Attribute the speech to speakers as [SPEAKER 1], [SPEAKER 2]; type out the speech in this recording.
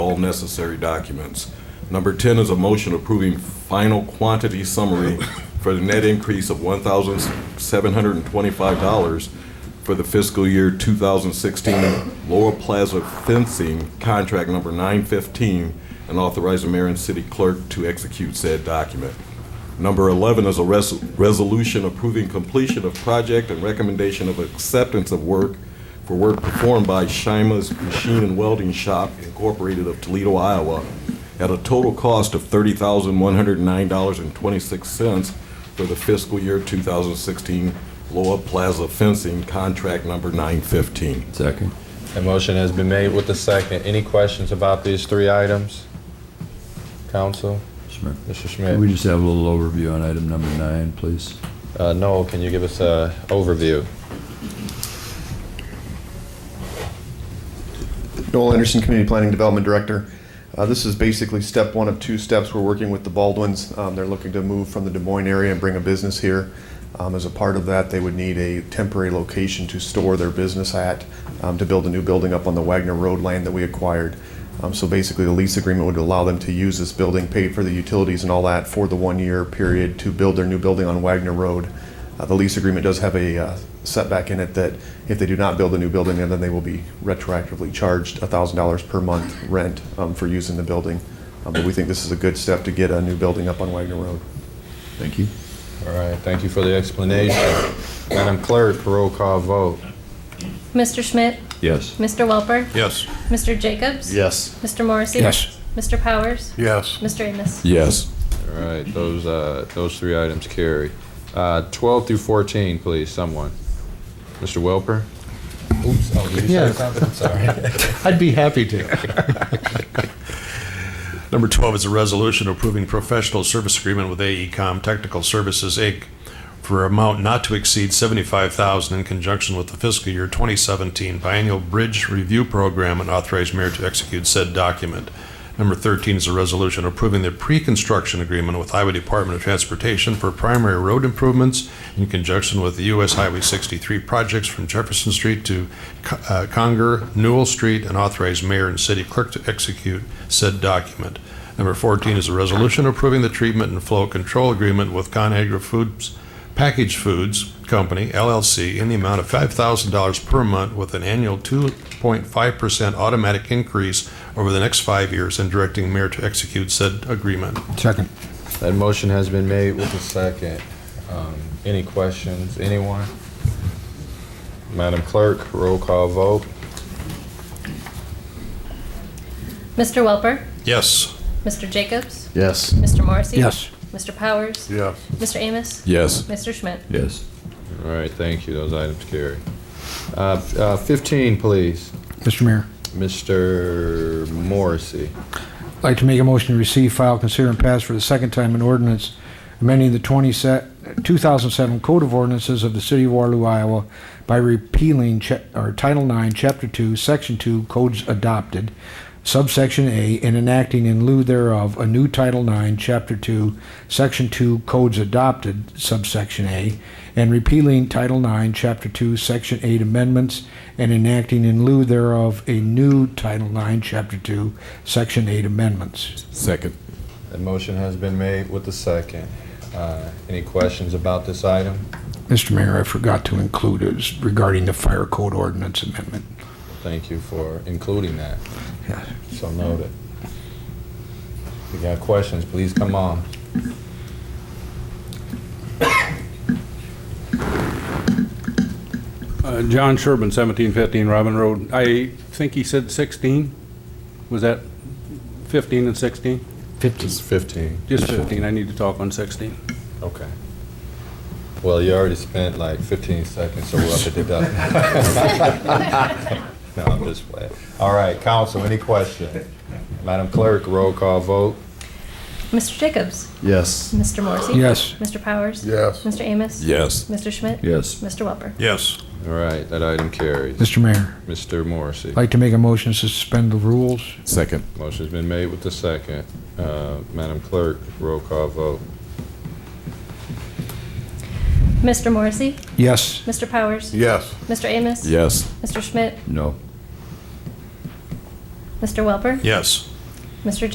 [SPEAKER 1] necessary documents. Number 10 is a motion approving final quantity summary for the net increase of $1,725 for the fiscal year 2016 Laurel Plaza fencing contract number 915 and authorize the mayor and city clerk to execute said document. Number 11 is a res- resolution approving completion of project and recommendation of acceptance of work for work performed by Shima's Machine and Welding Shop Incorporated of Toledo, Iowa, at a total cost of $30,109.26 for the fiscal year 2016 Loa Plaza fencing contract number 915.
[SPEAKER 2] Second.
[SPEAKER 3] A motion has been made with the second. Any questions about these three items? Council,
[SPEAKER 2] Schmidt.
[SPEAKER 3] Mr.
[SPEAKER 2] Can we
[SPEAKER 3] Schmidt?
[SPEAKER 2] just have a little overview on item number nine, please?
[SPEAKER 3] Uh, Noel, can you give us a overview?
[SPEAKER 4] Noel Anderson, Community Planning Development Director. Uh, This is basically step one of two steps. We're working with the Baldwins. Um, They're looking to move from the Des Moines area and bring a business here. Um, As a part of that, they would need a temporary location to store their business at, um, to build a new building up on the Wagner Road land that we acquired. Um, So basically, the lease agreement would allow them to use this building, pay for the utilities and all that for the one-year period to build their new building on Wagner Road. Uh, The lease agreement does have a uh, setback in it that if they do not build a new building, then they will be retroactively charged $1,000 per month rent um, for using the building. Um, But we think this is a good step to get a new building up on Wagner Road.
[SPEAKER 2] Thank you.
[SPEAKER 3] All right, thank you for the explanation. Madam Clerk, roll call vote.
[SPEAKER 5] Mr. Schmidt?
[SPEAKER 2] Yes.
[SPEAKER 5] Mr. Welper?
[SPEAKER 6] Yes.
[SPEAKER 5] Mr. Jacobs?
[SPEAKER 4] Yes.
[SPEAKER 5] Mr. Morrissey?
[SPEAKER 6] Yes.
[SPEAKER 5] Mr. Powers?
[SPEAKER 6] Yes.
[SPEAKER 5] Mr. Amos?
[SPEAKER 2] Yes.
[SPEAKER 3] All right, those, uh, those three items carry. Uh, 12 through 14, please, someone. Mr. Welper? Oops, oh, did you
[SPEAKER 6] Yeah.
[SPEAKER 3] something? Sorry.
[SPEAKER 6] I'd be happy to. Number 12 is a resolution approving professional service agreement with AECom Technical Services, Inc. for an amount not to exceed 75000 in conjunction with the fiscal year 2017 biennial bridge review program and authorize mayor to execute said document. Number 13 is a resolution approving the pre-construction agreement with Iowa Department of Transportation for primary road improvements in conjunction with the U.S. Highway 63 projects from Jefferson Street to uh, Conger, Newell Street, and authorize mayor and city clerk to execute said document. Number 14 is a resolution approving the treatment and flow control agreement with ConAgra Foods Packaged Foods Company LLC in the amount of $5,000 per month with an annual 2.5% automatic increase over the next five years and directing mayor to execute said agreement.
[SPEAKER 7] Second.
[SPEAKER 3] That motion has been made with the second. Um, Any questions, anyone? Madam Clerk, roll call vote.
[SPEAKER 5] Mr. Welper?
[SPEAKER 6] Yes.
[SPEAKER 5] Mr. Jacobs?
[SPEAKER 4] Yes.
[SPEAKER 5] Mr. Morrissey?
[SPEAKER 7] Yes.
[SPEAKER 5] Mr. Powers?
[SPEAKER 6] Yes.
[SPEAKER 5] Mr. Amos?
[SPEAKER 1] Yes.
[SPEAKER 5] Mr. Schmidt?
[SPEAKER 2] Yes.
[SPEAKER 3] All right, thank you, those items carry. Uh, f- uh, 15, please,
[SPEAKER 7] Mr. Mayor,
[SPEAKER 3] Mr. Morrissey.
[SPEAKER 7] I'd like to make a motion to receive, file, consider, and pass for the second time an ordinance amending the 20 se- 2007 Code of Ordinances of the City of Waterloo, Iowa by repealing cha- or Title 9, Chapter 2, Section 2, Codes Adopted, subsection A, and enacting in lieu thereof a new Title 9, Chapter 2, Section 2, Codes Adopted, subsection A, and repealing Title 9, Chapter 2, Section 8 amendments, and enacting in lieu thereof a new Title 9, Chapter 2, Section 8 amendments.
[SPEAKER 1] Second.
[SPEAKER 3] The motion has been made with the second. Uh, Any questions about this item?
[SPEAKER 7] Mr. Mayor, I forgot to include is regarding the fire code ordinance amendment.
[SPEAKER 3] Thank you for including that.
[SPEAKER 7] Yes.
[SPEAKER 3] So noted. If you got questions, please come on.
[SPEAKER 8] Uh, John Sherbin, 1715 Robin Road. I think he said 16. Was that 15 and 16?
[SPEAKER 3] It's 15.
[SPEAKER 8] Just 15. I need to talk on 16.
[SPEAKER 3] Okay. Well, you already spent like 15 seconds, so we'll have to deduct. No, I'm just playing. All right, council, any question? Madam Clerk, roll call vote.
[SPEAKER 5] Mr. Jacobs?
[SPEAKER 4] Yes.
[SPEAKER 5] Mr. Morrissey?
[SPEAKER 7] Yes.
[SPEAKER 5] Mr. Powers?
[SPEAKER 6] Yes.
[SPEAKER 5] Mr. Amos?
[SPEAKER 1] Yes.
[SPEAKER 5] Mr. Schmidt?
[SPEAKER 2] Yes.
[SPEAKER 5] Mr. Welper?
[SPEAKER 6] Yes.
[SPEAKER 3] All right, that item carries.
[SPEAKER 7] Mr. Mayor,
[SPEAKER 3] Mr. Morrissey,
[SPEAKER 7] I'd like to make a motion to suspend the rules.
[SPEAKER 1] Second.
[SPEAKER 3] motion's been made with the second. Uh, Madam Clerk, roll call vote.
[SPEAKER 5] Mr. Morrissey?
[SPEAKER 7] Yes.
[SPEAKER 5] Mr. Powers?
[SPEAKER 6] Yes.
[SPEAKER 5] Mr. Amos?
[SPEAKER 1] Yes.
[SPEAKER 5] Mr. Schmidt?
[SPEAKER 2] No.
[SPEAKER 5] Mr. Welper?
[SPEAKER 6] Yes.
[SPEAKER 5] Mr.